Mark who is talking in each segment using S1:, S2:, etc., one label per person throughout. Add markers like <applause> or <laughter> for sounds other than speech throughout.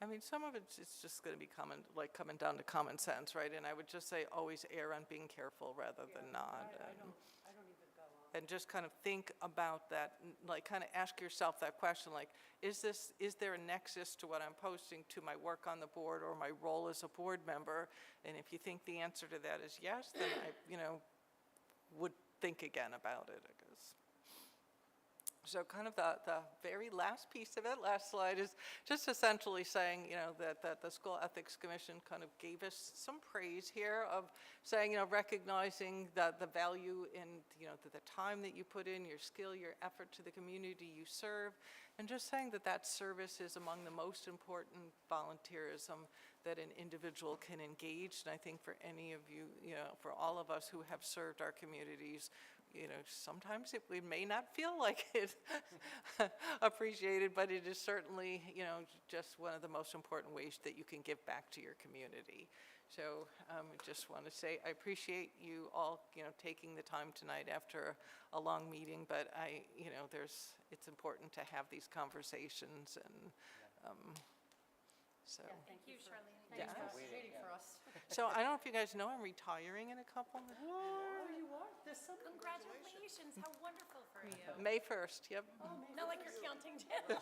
S1: I mean, some of it's, it's just going to be common, like coming down to common sense, right? And I would just say always err on being careful rather than not. and- And just kind of think about that, n- like kind of ask yourself that question, like, is this, is there a nexus to what I'm posting to my work on the board or my role as a board member? And if you think the answer to that is yes, then I, you know, would think again about it, I guess. So kind of the, the very last piece of it, last slide, is just essentially saying, you know, that, that the School Ethics Commission kind of gave us some praise here of saying, you know, recognizing that the value in, you know, the, the time that you put in, your skill, your effort to the community you serve, and just saying that that service is among the most important volunteerism that an individual can engage. And I think for any of you, you know, for all of us who have served our communities, you know, sometimes it, we may not feel like <laughs> it appreciated, but it is certainly, you know, just one of the most important ways that you can give back to your community. So um, I just want to say, I appreciate you all, you know, taking the time tonight after a long meeting, but I, you know, there's, it's important to have these conversations and, um, so.
S2: Thank you, Charlene.
S1: Yeah.
S2: Thanks for waiting for us.
S1: So I don't know if you guys know, I'm retiring in a couple,
S2: Oh, you are, there's some.
S3: Congratulations, how wonderful for you.
S1: May 1st, yep.
S3: Not like you're counting down.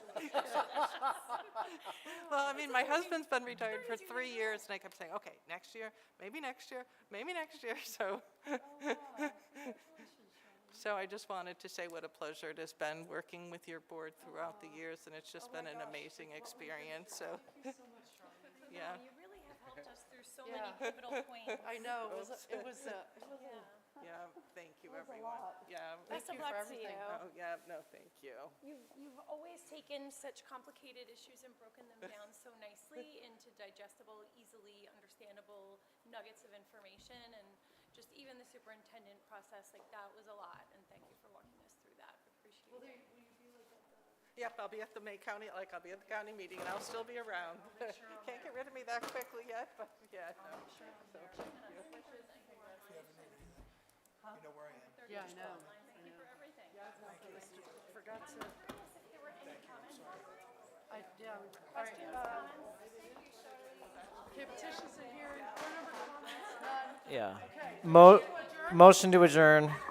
S1: Well, I mean, my husband's been retired for
S3: 32
S1: three
S3: years
S1: years, and I kept saying, okay, next year, maybe next year, maybe next year, <laughs> so. So I just wanted to say what a pleasure it has been working with your board throughout the years, and it's
S2: Oh
S1: just been an amazing experience, so,
S2: Thank you so much, Charlene.
S1: yeah.
S3: You really have helped us through so many
S2: Yeah. <laughs>
S3: pivotal points.
S2: I know, it was, a- it was, <laughs> a- it was a little-
S3: Yeah.
S1: Yeah, thank you,
S2: That was a
S1: everyone.
S2: lot.
S1: Yeah.
S3: Best of
S2: you for
S3: luck to you.
S2: everything.
S1: Oh, yeah, no, thank you.
S3: You've, you've always taken such complicated issues and broken
S2: <laughs>
S3: them down so nicely into digestible, easily understandable nuggets of information. And just even the superintendent process, like that was a lot. And thank you for walking us through that.
S2: will
S3: Appreciate
S2: there-
S3: it.
S2: will you be like at the-
S1: Yep, I'll be at the May County, like, I'll be at the county meeting, and I'll still be around. <laughs> Can't get rid of me that quickly yet, but, yeah, no.
S4: You know where I am.
S2: Yeah, I know.
S3: Thank you for everything.
S2: Forgot to,
S3: Curious if there were any comments online?
S2: I, yeah. All right, uh, okay, petitions are here, and board member comments, none.
S5: Yeah.
S2: Okay.
S5: Mo-
S2: Adjourn?
S5: motion to adjourn.